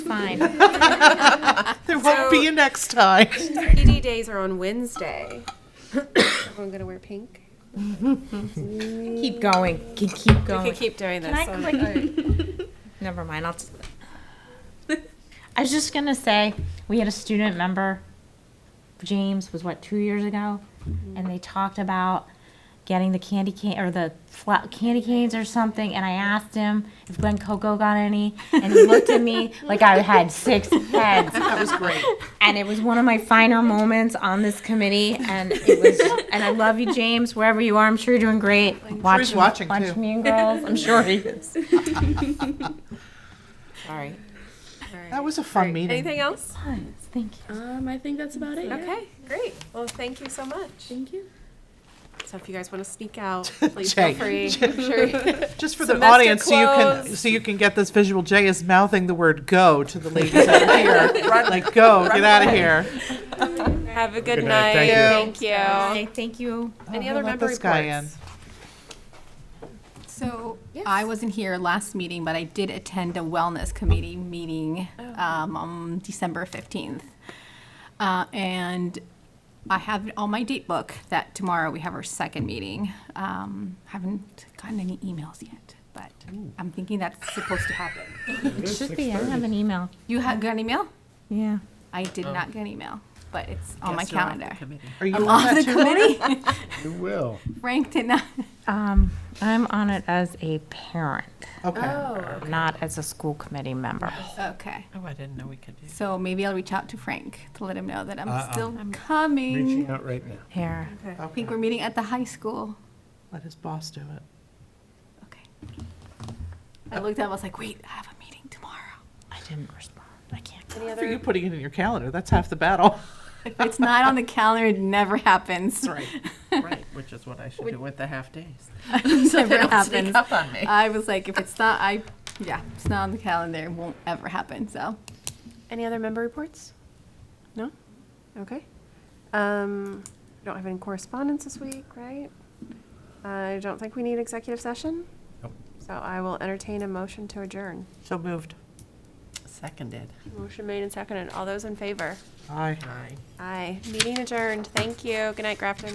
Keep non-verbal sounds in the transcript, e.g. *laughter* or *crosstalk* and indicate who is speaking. Speaker 1: fine.
Speaker 2: There won't be a next time.
Speaker 3: PD days are on Wednesday. Everyone gonna wear pink?
Speaker 4: *laughs* Keep going. Keep, keep
Speaker 3: I
Speaker 4: going.
Speaker 3: could keep doing this.
Speaker 1: Can I
Speaker 3: one.
Speaker 1: click?
Speaker 3: *laughs*
Speaker 4: *laughs* Never mind. I'll. Just,
Speaker 1: *laughs* I was just gonna say, we had a student member, James was what, two years ago?
Speaker 3: Mm-hmm.
Speaker 1: And they talked about getting the candy cane, or the fla- candy canes or something, and I asked him if Glen Coco got any, and he looked at
Speaker 3: *laughs*
Speaker 1: me like I had six heads.
Speaker 2: That was great.
Speaker 1: And it was one of my finer moments on this committee, and it was, and I love you, James, wherever you are, I'm sure you're doing great. Watch,
Speaker 2: he's watching,
Speaker 1: watch
Speaker 2: too.
Speaker 1: Mean Girls, I'm sure he is.
Speaker 4: sorry.
Speaker 2: That was a fun meeting.
Speaker 3: Anything else?
Speaker 1: Thank you.
Speaker 5: Um, I think that's about it. yeah.
Speaker 3: Okay, great. Well, thank you so much.
Speaker 5: Thank you.
Speaker 3: So if you guys want to sneak out, *laughs* please feel
Speaker 2: Jay.
Speaker 3: free. I'm sure.
Speaker 2: Just for the
Speaker 3: Semester
Speaker 2: audience, so you can
Speaker 3: closed.
Speaker 2: so you can get this visual. Jay is mouthing the word "go" to the
Speaker 6: *laughs*
Speaker 2: ladies out here. Like, go, get out of here.
Speaker 3: Have a good,
Speaker 7: Good
Speaker 3: night.
Speaker 7: night, thank
Speaker 3: Thank you.
Speaker 1: Okay, thank you.
Speaker 3: Any
Speaker 2: Oh,
Speaker 3: other
Speaker 2: let
Speaker 3: member
Speaker 2: this guy
Speaker 3: reports?
Speaker 8: So I wasn't here last meeting, but I did attend a wellness committee meeting um, on December 15th. Uh, And I have it on my date book that tomorrow we have our second meeting. Um, Haven't gotten any emails yet, but I'm thinking that's supposed to happen.
Speaker 1: It should be, I don't have an email.
Speaker 8: You ha got an email?
Speaker 1: Yeah.
Speaker 8: I did
Speaker 7: Oh.
Speaker 8: not get an email, but it's on my calendar.
Speaker 2: Are you
Speaker 8: I'm
Speaker 2: on
Speaker 8: off the
Speaker 2: that too?
Speaker 8: committee?
Speaker 7: You will.
Speaker 8: Frank did not. *laughs*
Speaker 1: Um, I'm on it as a parent,
Speaker 2: Okay.
Speaker 1: not as a school committee member.
Speaker 8: Okay.
Speaker 6: Oh, I didn't know we could do
Speaker 8: So maybe I'll reach out to Frank to let him know that I'm
Speaker 7: Uh-uh.
Speaker 8: still coming.
Speaker 7: Reaching out right now.
Speaker 1: Here.
Speaker 8: I think we're meeting at the high school.
Speaker 2: Let his boss do it.
Speaker 8: Okay. I looked up, I was like, wait, I have a meeting tomorrow.
Speaker 1: I didn't respond. I can't.
Speaker 2: For you putting it in your calendar, that's half
Speaker 6: *laughs*
Speaker 2: the battle.
Speaker 8: If it's not on the calendar, it never happens.
Speaker 2: right.
Speaker 6: it. Right, which is what I should do with the half days.
Speaker 8: *laughs*
Speaker 6: *laughs*
Speaker 8: It never
Speaker 6: Sneak
Speaker 8: happens.
Speaker 6: up on me.
Speaker 8: I was like, if it's not, I, yeah, it's not on the calendar, it won't ever happen, so.
Speaker 3: Any other member reports? No? Okay. Um, we don't have any correspondence this week, right? I don't think we need executive session.
Speaker 7: Nope.
Speaker 3: So I will entertain a motion to adjourn.
Speaker 2: So moved.
Speaker 6: Seconded.
Speaker 3: Motion made and seconded. All those in favor?
Speaker 2: Aye.
Speaker 6: Aye.
Speaker 3: Aye. Meeting adjourned. Thank you. Good night, Grafton.